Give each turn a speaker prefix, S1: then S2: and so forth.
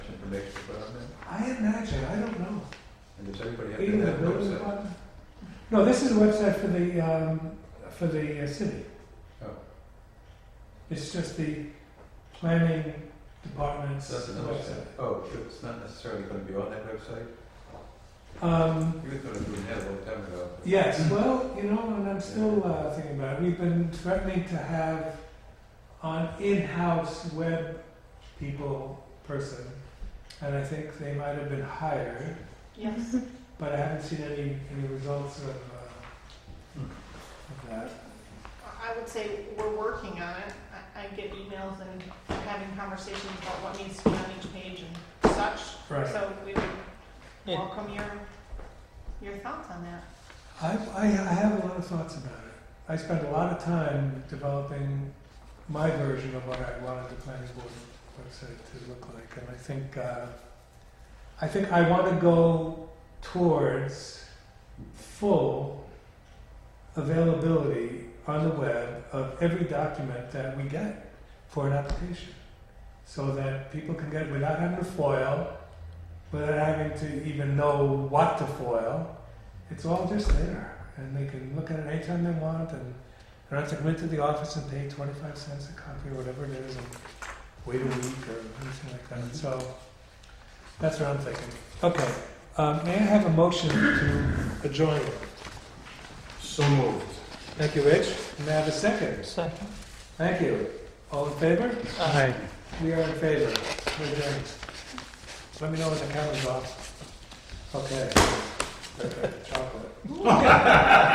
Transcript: S1: recommendation to put on there?
S2: I imagine, I don't know.
S1: And does everybody have
S2: Even
S1: to
S2: the
S1: have a
S2: building
S1: website?
S2: department? No, this is a website for the, um, for the uh, city.
S1: Oh.
S2: It's just the planning department's
S1: So that's another
S2: website.
S1: step. Oh, but it's not necessarily going to be on that website?
S2: Um,
S1: You were going to do that a long time ago.
S2: yes,
S1: Hmm.
S2: well, you know, and I'm still, uh, thinking about it, we've been threatening to have an in-house web people person, and I think they might have been hired,
S3: Yes.
S2: but I haven't seen any, any results of, uh, of that.
S3: I would say we're working on it. I, I get emails and having conversations about what needs to be on each page and such.
S2: Right.
S3: So we would welcome your, your thoughts on that.
S2: I, I, I have a lot of thoughts about it. I spent a lot of time developing my version of what I wanted the planning board website to look like, and I think uh, I think I want to go towards full availability on the web of every document that we get for an application, so that people can get it without having to foil, without having to even know what to foil it's all just there, and they can look at it anytime they want, and they don't have to come into the office and pay twenty-five cents a copy or whatever it is, and wait a week or anything like
S4: Mm-hmm.
S2: that. So that's what I'm thinking. Okay, um, may I have a motion to adjourn?
S4: So moved.
S2: Thank you, Rich. May I have a second? Second. Thank you. All in favor?
S4: Aye.
S2: We are in favor. We're adjourned. Let me know when the camera's off. Okay. Chocolate.